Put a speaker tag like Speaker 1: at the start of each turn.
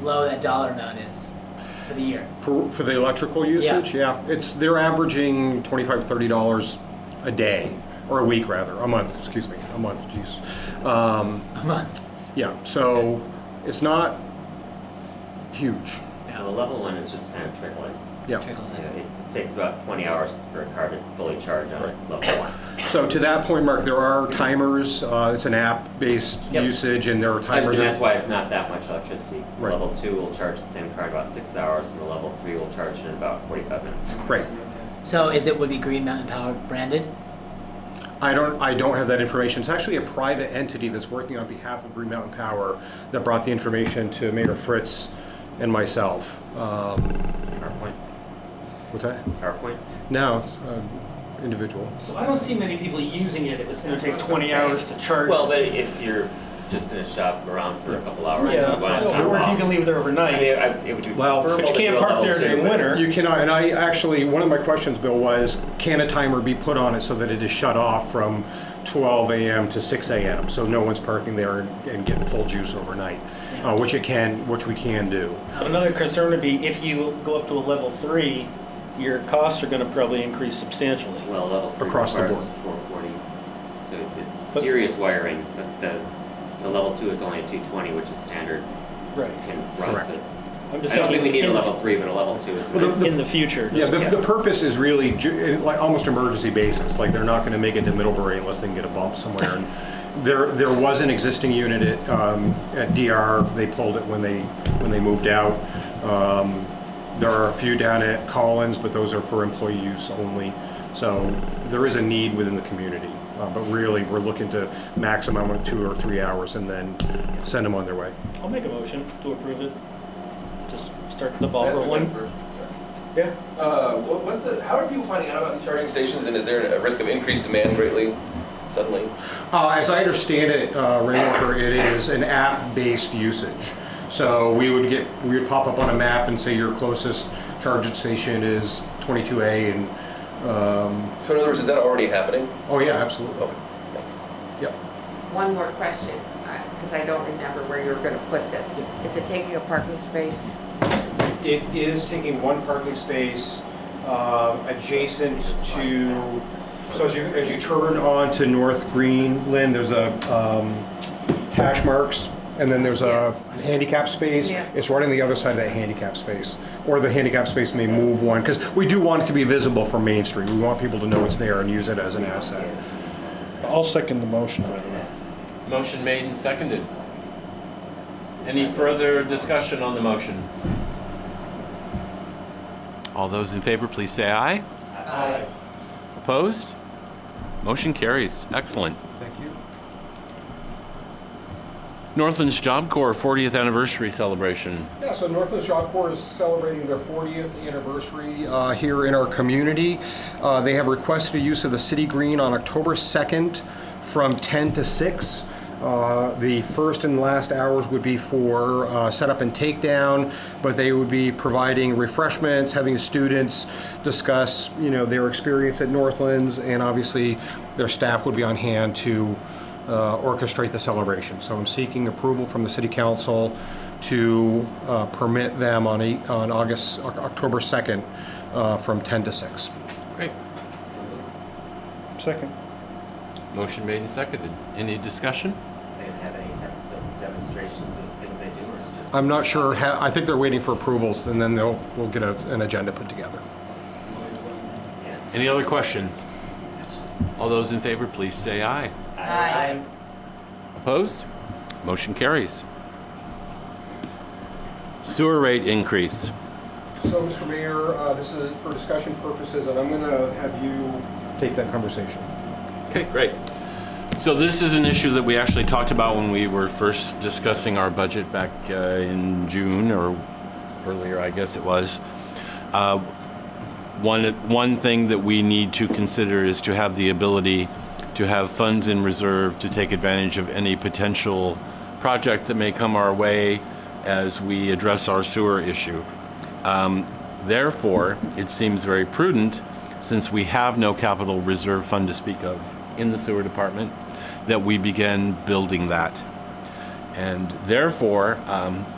Speaker 1: low that dollar amount is for the year.
Speaker 2: For, for the electrical usage? Yeah, it's, they're averaging $25, $30 a day, or a week rather, a month, excuse me, a month, jeez. Um,
Speaker 1: A month.
Speaker 2: Yeah, so it's not huge,
Speaker 3: Now, the level one is just kind of trickling.
Speaker 2: yeah.
Speaker 1: Trickles
Speaker 3: You know,
Speaker 1: in.
Speaker 3: it takes about 20 hours for a car to fully charge on level one.
Speaker 2: So to that point, Mark, there are timers, uh, it's an app-based
Speaker 3: Yep.
Speaker 2: usage, and there are
Speaker 3: And
Speaker 2: timers.
Speaker 3: that's why it's not that much electricity.
Speaker 2: Right.
Speaker 3: Level two will charge the same car in about six hours, and the level three will charge it in about 45 minutes.
Speaker 2: Right.
Speaker 1: So is it would be Green Mountain Power branded?
Speaker 2: I don't, I don't have that information. It's actually a private entity that's working on behalf of Green Mountain Power that brought the information to Mayor Fritz and myself. Um,
Speaker 3: CarPoint,
Speaker 2: What's that?
Speaker 3: CarPoint.
Speaker 2: No, it's, uh, individual.
Speaker 4: So I don't see many people using it if it's gonna take twenty hours to charge.
Speaker 3: Well, but if you're just going to shop around for a couple hours,
Speaker 4: Yeah,
Speaker 3: you want to time
Speaker 4: or if you
Speaker 3: off.
Speaker 4: can leave there
Speaker 3: I
Speaker 4: overnight,
Speaker 3: mean, I- it would be
Speaker 2: Well,
Speaker 3: preferable
Speaker 4: but you
Speaker 3: to do
Speaker 4: can't
Speaker 3: a
Speaker 4: park
Speaker 3: level
Speaker 4: there
Speaker 3: two,
Speaker 4: during
Speaker 3: but-
Speaker 4: winter.
Speaker 2: You cannot, and I actually, one of my questions, Bill, was can a timer be put on it so that it is shut off from 12 a.m. to 6 a.m. so no one's parking there and, and getting full juice overnight, uh, which it can, which we can do.
Speaker 4: Another concern would be if you go up to a level three, your costs are gonna probably increase substantially.
Speaker 3: Well, level three
Speaker 2: Across the
Speaker 3: requires
Speaker 2: board.
Speaker 3: 440, so it's- it's
Speaker 4: But-
Speaker 3: serious wiring, but the, the level two is only a 220, which is standard,
Speaker 4: Right.
Speaker 3: can run,
Speaker 2: Correct.
Speaker 3: so. I
Speaker 4: I'm just
Speaker 3: don't think we
Speaker 4: thinking
Speaker 3: need a
Speaker 4: in-
Speaker 3: level three, but a level two is nice.
Speaker 4: In the future.
Speaker 2: Yeah,
Speaker 4: just-
Speaker 2: the, the purpose is really ju- eh, like almost emergency basis. Like they're not going to make it to Middlebury unless they can get a bump somewhere. And there, there was an existing unit at um, at DR. They pulled it when they when they moved out. Um, there are a few down at Collins, but those are for employee use only. So there is a need within the community, uh, but really we're looking to maximum of two or three hours and then send them on their way.
Speaker 4: I'll make a motion to approve it. Just start the ball rolling. Yeah.
Speaker 5: Uh, what, what's the? How are people finding out about these charging stations, and is there a risk of increased demand greatly suddenly?
Speaker 2: Uh, as I understand it, uh, Rainwalker, it is an app-based usage. So we would get, we would pop up on a map and say your closest charging station is 22A and, um,
Speaker 5: So in other words, is that already happening?
Speaker 2: oh yeah, absolutely.
Speaker 5: Okay, thanks.
Speaker 2: Yep.
Speaker 6: One more question, because I don't remember where you're going to put this. Is it taking a parking space?
Speaker 2: It is taking one parking space uh, adjacent to, so as you, as you turn on to North Greenland, there's a um, hash marks, and then there's a
Speaker 6: Yes.
Speaker 2: handicap space.
Speaker 6: Yeah.
Speaker 2: It's right on the other side of that handicap space, or the handicap space may move one, because we do want it to be visible from Main Street. We want people to know it's there and use it as an asset.
Speaker 7: I'll second the motion, by the way.
Speaker 8: Motion made and seconded. Any further discussion on the motion? All those in favor, please say aye. Aye. Opposed? Motion carries. Excellent.
Speaker 2: Thank you.
Speaker 8: Northland's Job Corps 40th Anniversary Celebration.
Speaker 2: Yeah, so Northwest Job Corps is celebrating their 40th anniversary uh, here in our community. Uh, They have requested use of the city green on October 2nd from 10 to 6. Uh, The first and last hours would be for uh, setup and takedown, but they would be providing refreshments, having students discuss, you know, their experience at Northlands, and obviously their staff would be on hand to uh, orchestrate the celebration. So I'm seeking approval from the city council to uh, permit them on eight, on August, Oc- October 2nd, uh, from 10 to 6.
Speaker 8: Great.
Speaker 7: Second.
Speaker 8: Motion made and seconded. Any discussion?
Speaker 3: They have any types of demonstrations of things they do, or is it just?
Speaker 2: I'm not sure, how- I think they're waiting for approvals, and then they'll, we'll get a- an agenda put together.
Speaker 3: Yeah.
Speaker 8: Any other questions? All those in favor, please say aye.
Speaker 6: Aye.
Speaker 8: Opposed? Motion carries. Sewer rate increase.
Speaker 2: So, Mr. Mayor, uh, this is for discussion purposes, and I'm going to have you take that conversation.
Speaker 8: Okay, great. So this is an issue that we actually talked about when we were first discussing our budget back uh, in June or earlier, I guess it was. Uh, One, one thing that we need to consider is to have the ability to have funds in reserve to take advantage of any potential project that may come our way as we address our sewer issue. Therefore, it seems very prudent, since we have no capital reserve fund to speak of in the sewer department, that we begin building that. And therefore, um,